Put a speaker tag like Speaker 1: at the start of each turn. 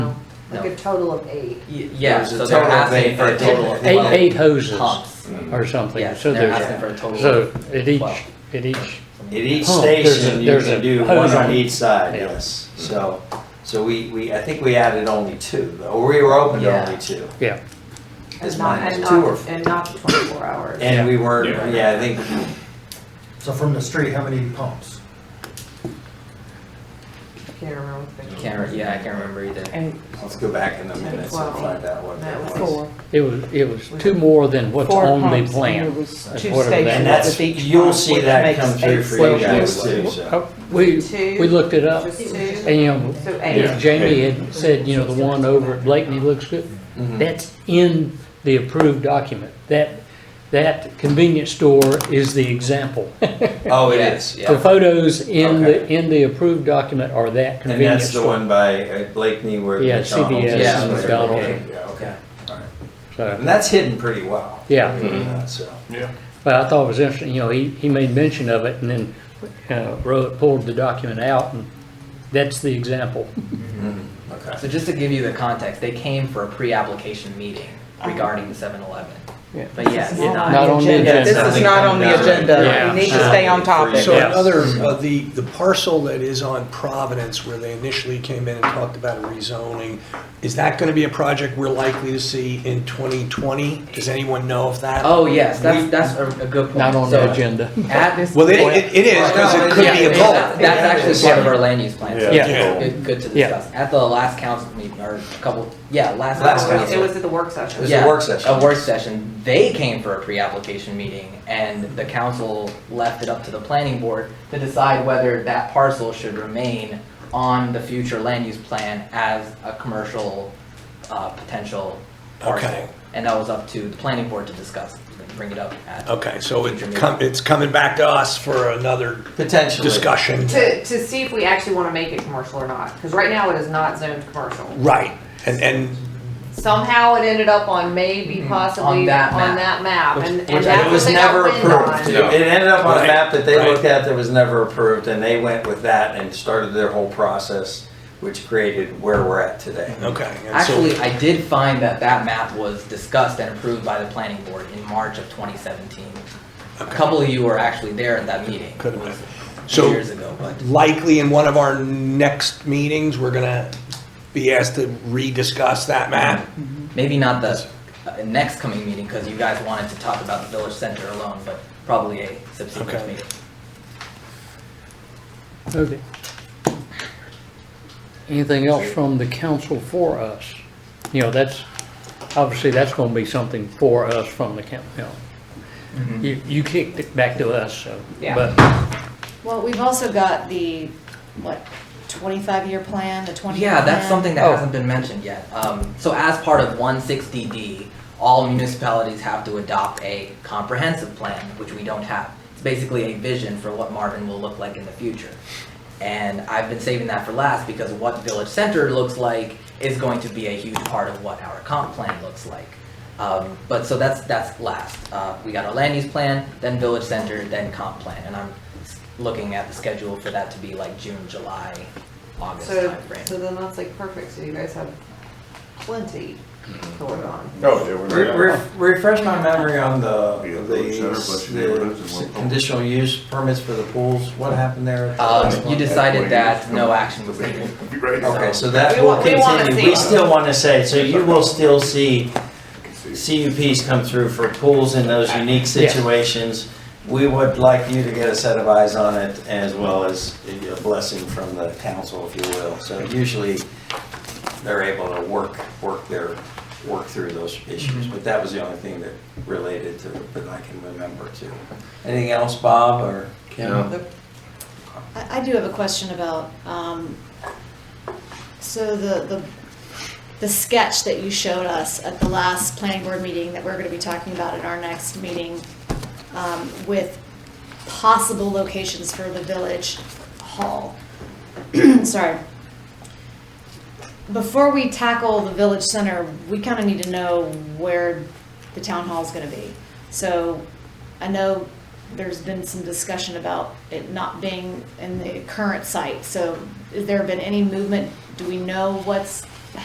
Speaker 1: Like
Speaker 2: No.
Speaker 1: a total of eight.
Speaker 2: Y-
Speaker 3: There
Speaker 2: Yeah,
Speaker 3: was a
Speaker 2: so they're
Speaker 3: total of
Speaker 2: asking
Speaker 3: eight,
Speaker 2: for a
Speaker 3: but
Speaker 2: total of
Speaker 3: they-
Speaker 2: twelve.
Speaker 4: Eight, eight hoses
Speaker 2: Pumps.
Speaker 4: or something,
Speaker 2: Yeah,
Speaker 4: so
Speaker 2: they're asking
Speaker 4: there's,
Speaker 2: for a total
Speaker 4: so
Speaker 2: of
Speaker 4: at each,
Speaker 2: twelve.
Speaker 4: at each,
Speaker 3: At each
Speaker 4: Oh, there's a-
Speaker 3: station, you
Speaker 4: there's
Speaker 3: can
Speaker 4: a
Speaker 3: do
Speaker 4: hose
Speaker 3: one on
Speaker 4: on-
Speaker 3: each side,
Speaker 4: yeah.
Speaker 3: yes. So, so we, we, I think we added only two, or we were open to
Speaker 2: Yeah.
Speaker 3: only two.
Speaker 4: yeah.
Speaker 3: Is
Speaker 5: And not,
Speaker 3: mine
Speaker 5: and
Speaker 3: two or
Speaker 5: not,
Speaker 3: four?
Speaker 5: and not the twenty-four hours.
Speaker 3: And we weren't,
Speaker 6: Yeah.
Speaker 3: yeah, I think,
Speaker 7: So from the street, how many pumps?
Speaker 5: Can't remember what they-
Speaker 2: Can't, re- yeah, I can't remember either.
Speaker 5: And
Speaker 3: let's go back in the minutes and
Speaker 5: Twelve.
Speaker 3: find out what
Speaker 5: that was
Speaker 3: that was.
Speaker 5: four.
Speaker 4: It was, it was two more than what's
Speaker 8: Four
Speaker 4: on the
Speaker 8: pumps,
Speaker 4: plan.
Speaker 8: And there was
Speaker 4: That's
Speaker 8: two
Speaker 4: whatever that
Speaker 8: stations
Speaker 3: And
Speaker 4: was.
Speaker 3: that's,
Speaker 8: with each
Speaker 3: you'll
Speaker 8: pump,
Speaker 3: see
Speaker 8: which
Speaker 3: that
Speaker 8: makes
Speaker 3: come through
Speaker 8: eight
Speaker 3: for
Speaker 4: Well,
Speaker 3: you guys
Speaker 8: stations.
Speaker 3: too,
Speaker 4: Uh,
Speaker 3: so.
Speaker 4: We,
Speaker 5: Two.
Speaker 4: we looked it up
Speaker 5: Just two.
Speaker 4: and
Speaker 5: So
Speaker 4: Yeah,
Speaker 5: eight.
Speaker 4: Jamie had said, you know, the one over at Blakeney looks good.
Speaker 3: Mhm.
Speaker 4: That's in the approved document. That, that convenience store is the example.
Speaker 3: Oh, it
Speaker 2: Yeah,
Speaker 3: is,
Speaker 2: yeah.
Speaker 4: The photos in the,
Speaker 3: Okay.
Speaker 4: in the approved document are
Speaker 3: And that's
Speaker 4: that convenience
Speaker 3: the
Speaker 4: store.
Speaker 3: one by uh, Blakeney where
Speaker 4: Yeah,
Speaker 3: McDonald's
Speaker 4: CBS
Speaker 3: is.
Speaker 2: Yeah. and
Speaker 4: McDonald's.
Speaker 3: Okay, Yeah, okay. All right. And
Speaker 4: So,
Speaker 3: that's hidden pretty well.
Speaker 4: Yeah,
Speaker 3: Uh, So,
Speaker 6: Yeah.
Speaker 4: but I thought it was interesting, you know, he, he made mention of it and then, uh, Rohit pulled the document out and that's the example.
Speaker 3: mhm, okay.
Speaker 2: So just to give you the context, they came for a pre-application meeting regarding the 7-Eleven.
Speaker 4: Yeah.
Speaker 2: But yes,
Speaker 8: Not
Speaker 2: not-
Speaker 4: Not on the agenda.
Speaker 8: This is not on the agenda.
Speaker 4: Yeah.
Speaker 8: We need to stay on topic.
Speaker 9: So
Speaker 4: Yeah.
Speaker 9: another, uh, the, the parcel that is on Providence where they initially came in and talked about a rezoning, is that going to be a project we're likely to see in 2020? Does anyone know of that?
Speaker 2: Oh, yes, that's, that's a, a good point.
Speaker 4: Not on
Speaker 2: So
Speaker 4: the agenda.
Speaker 2: At this.
Speaker 9: Well, it,
Speaker 2: point-
Speaker 9: it it is, because it could be
Speaker 2: Yeah,
Speaker 9: a
Speaker 2: That's
Speaker 9: goal.
Speaker 2: that's actually part of our land use plan, so
Speaker 4: Yeah.
Speaker 9: Yeah.
Speaker 2: it's good, good to
Speaker 4: Yeah.
Speaker 2: discuss. At the last council meeting, or a couple, yeah, last.
Speaker 3: Last
Speaker 2: council
Speaker 3: council.
Speaker 5: It
Speaker 2: meeting.
Speaker 5: was at the work session.
Speaker 3: was a
Speaker 2: Yeah,
Speaker 3: work session.
Speaker 2: A work session. They came for a pre-application meeting and the council left it up to the planning board to decide whether that parcel should remain on the future land use plan as a commercial, uh, potential
Speaker 9: Okay.
Speaker 2: parcel. And that was up to the planning board to discuss, bring it up at.
Speaker 9: Okay, so it come- it's coming back to us for another
Speaker 3: Potentially.
Speaker 9: discussion.
Speaker 5: To, to see if we actually wanna make it commercial or not, cause right now it is not zoned commercial.
Speaker 9: Right, and, and
Speaker 5: Somehow it ended up on maybe possibly on
Speaker 2: that map.
Speaker 5: that map,
Speaker 2: Which-
Speaker 5: and,
Speaker 2: which
Speaker 5: and
Speaker 2: I-
Speaker 5: that's
Speaker 3: It
Speaker 5: what
Speaker 3: was
Speaker 5: they got
Speaker 3: never
Speaker 5: wind
Speaker 3: approved.
Speaker 5: on.
Speaker 3: It it ended up on a
Speaker 9: Right,
Speaker 3: map that they
Speaker 9: right.
Speaker 3: looked at that was never approved, and they went with that and started their whole process, which created where we're at today.
Speaker 9: Okay. and so-
Speaker 2: Actually, I did find that that map was discussed and approved by the planning board in March of 2017. A couple of you were actually there at that meeting.
Speaker 9: Could have been.
Speaker 2: It was
Speaker 9: So-
Speaker 2: Years ago, but.
Speaker 9: likely in one of our next meetings, we're gonna be asked to rediscuss that map.
Speaker 2: Mm-hmm. Maybe not the uh, next coming meeting, because you guys wanted to talk about the village center alone, but probably a subsequent
Speaker 9: Okay.
Speaker 2: meeting.
Speaker 4: Okay. Anything else from the council for us? You know, that's, obviously, that's gonna be something for us from the council, you know. You, you kicked it back to us, so.
Speaker 5: Yeah.
Speaker 4: But
Speaker 10: Well, we've also got the, what, twenty-five year plan, the twenty.
Speaker 2: Yeah, that's something that
Speaker 4: Oh.
Speaker 2: hasn't been mentioned yet. Um, so as part of 160D, all municipalities have to adopt a comprehensive plan, which we don't have. It's basically a vision for what Marvin will look like in the future. And I've been saving that for last because what Village Center looks like is going to be a huge part of what our comp plan looks like. Um, but so that's that's last. Uh, we got our land use plan, then Village Center, then comp plan, and I'm s- looking at the schedule for that to be like June, July, August
Speaker 5: So,
Speaker 2: timeframe.
Speaker 5: so then that's like perfect, so you guys have plenty to work on.
Speaker 6: Oh, yeah, we're.
Speaker 3: Re- re- Refresh my memory on the,
Speaker 6: Yeah, village center, plus
Speaker 3: the,
Speaker 6: your neighborhoods and
Speaker 3: the
Speaker 6: one-
Speaker 3: conditional use permits for the pools, what happened there?
Speaker 2: Um, you decided that no action was needed.
Speaker 6: Okay,
Speaker 3: Okay, so that
Speaker 5: We
Speaker 3: will
Speaker 5: want- we wanna
Speaker 3: continue,
Speaker 5: see
Speaker 3: we
Speaker 5: it.
Speaker 3: still wanna say, so you will still see CUPs come through for pools in those unique situations. We would like you to get a set of eyes on it as well as a blessing from the council, if you will. So usually they're able to work, work their, work through those issues. But that was the only thing that related to, that I can remember too. Anything else, Bob or Kim?
Speaker 10: I, I do have a question about, um, so the, the, the sketch that you showed us at the last planning board meeting that we're gonna be talking about at our next meeting, um, with possible locations for the village hall. Sorry. Before we tackle the village center, we kinda need to know where the town hall's gonna be. So I know there's been some discussion about it not being in the current site, so has there been any movement? Do we know what's